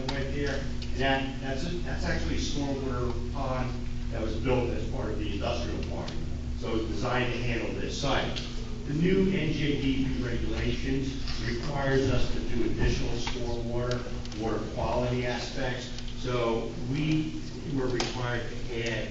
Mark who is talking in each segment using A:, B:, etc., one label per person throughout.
A: there, and that, that's, a- that's actually a stormwater pond that was built as part of the industrial park. So it's designed to handle this site. The new NJDP regulations requires us to do additional stormwater, water quality aspects. So we were required to add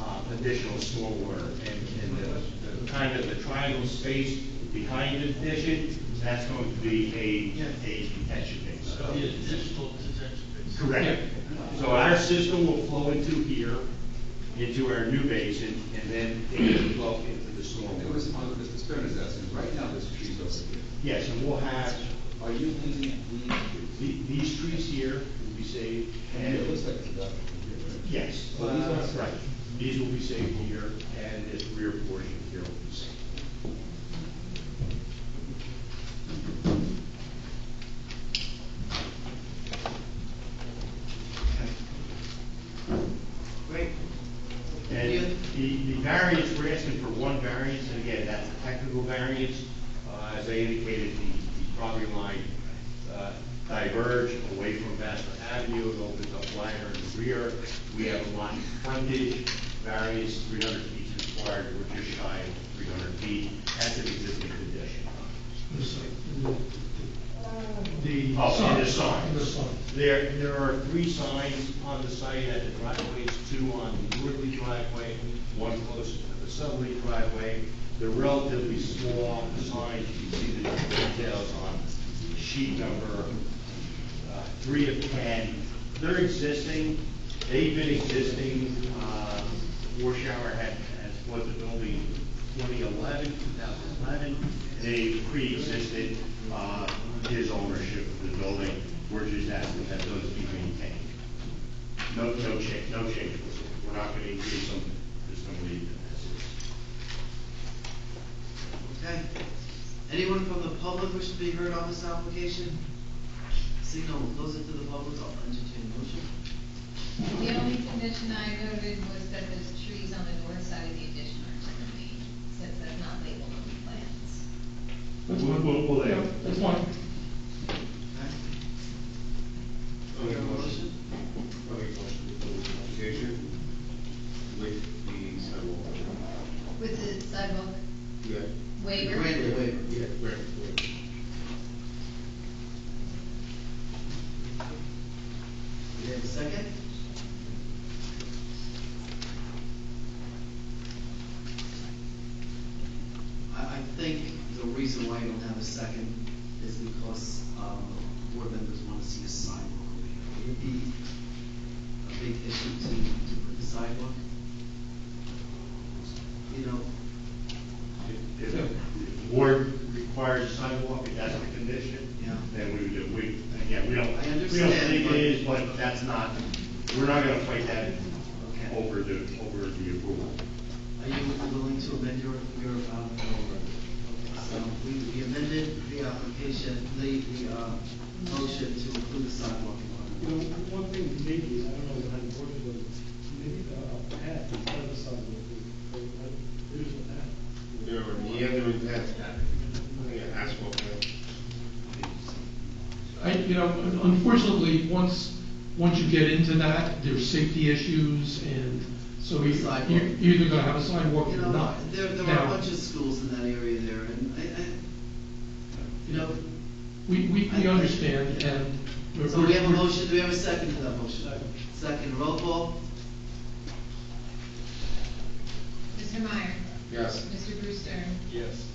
A: uh, additional stormwater and, and the- the kind of the triangle space behind the addition, that's going to be a, a detention base.
B: So the additional detention basin.
A: Correct. So our system will flow into here, into our new basin, and then it will flow into the
C: It was
A: stormwater.
C: one of Mr. Stern is asking, right now there's trees over here.
A: Yes, and we'll have
C: Are you leaning, leaning trees?
A: the- these trees here will be saved,
C: And
A: and
C: it looks like it's about here, right?
A: Yes,
C: Well, these ones-
A: right. These will be saved here, and this rear portion here will be saved.
D: Great.
A: And the, the variance, we're asking for one variance, and again, that's a technical variance. Uh, as I indicated, the, the property line, uh, diverged away from Vassar Avenue, it opens up wider in the rear. We have a lot of frontage variance, three hundred feet is required, we're just shy of three hundred feet, that's an existing condition.
E: The.
A: Oh, and the
E: sign,
A: signs.
E: The sign.
A: There, there are three signs on the site at the driveways, two on the northerly driveway, one close to the southerly driveway. They're relatively small signs, you can see the details on sheet number uh, three of ten. They're existing, they've been existing, uh, Warshauer had, has bought the building in 2011, 2011. They pre-existed, uh, his ownership of the building, we're just asking that those be maintained. No, no change, no changes, we're not gonna increase them, just gonna leave them as is.
D: Okay. Anyone from the public wish to be heard on this application? Signal, close it to the public, I'll entertain a motion.
F: The only condition I noted was that there's trees on the north side of the addition are to remain, since that's not labeled on the plans.
E: That's
A: We'll-
E: fine.
A: we'll- we'll-
E: Yeah, That's fine.
D: Okay?
G: I'll make a
D: Motion?
G: motion. I'll make a motion to close the application with the sidewalk.
F: With the sidewalk
G: Yeah.
F: waiver.
D: Waiver, waiver.
G: Yeah, right, right.
D: We have a second? I, I think the reason why you don't have a second is because, um, board members want to see a sidewalk over here. Would it be a big issue to, to put the sidewalk? You know,
A: If, if the board requires a sidewalk, if that's the condition,
D: Yeah.
A: then we would, do- we, again, we don't,
D: I
A: we don't
D: understand,
A: think it
D: but-
A: is, but that's not, we're not gonna fight that
D: Okay.
A: over the, over the approval.
D: are you willing to amend your, your, um, okay, so we, we amended the application, the, the, uh, motion to include the sidewalk.
H: You know, one thing maybe, I don't know how important it is, maybe a path in front of the sidewalk, or, or, there's a path.
G: There are the other is that, yeah, asphalt, yeah.
E: I, you know, unfortunately, once, once you get into that, there's safety issues and so we-
D: Sidewalk.
E: you're either gonna have a sidewalk
D: You
E: or
D: know,
E: not.
D: there, there are a
E: Now,
D: bunch of schools in that area there, and I, I, you know.
E: We, we, we
D: I-
E: understand and. we're-
D: So we have a
E: we're-
D: motion, do we have a second to that motion? Second, roll call?
F: Mr. Meyer.
G: Yes.
F: Mr. Brewster.
G: Yes.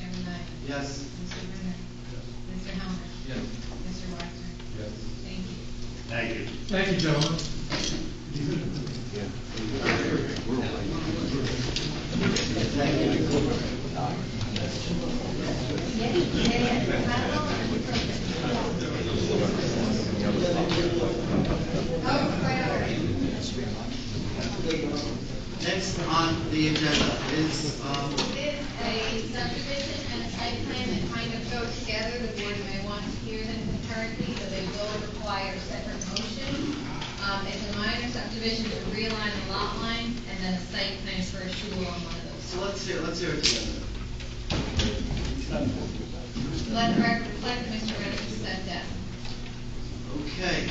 F: Chairman Knight.
D: Yes.
F: Mr. Brenner. Mr. Helmer.
G: Yes.
F: Mr. Wagner.
G: Yes.
F: Thank
A: Thank
F: you.
A: you.
E: Thank you, gentlemen.
F: Oh, right over here.
D: Next on the agenda is, um,
F: This a subdivision and a site plan that kind of go together, the board may want to hear them concurrently, so they will require separate motion. Um, it's a minor subdivision to realign the lot line, and then a site plan for a shul on one of
D: so
F: those.
D: let's hear, let's hear it together.
F: Let the record reflect that Mr. Reddick stepped down.
D: Okay.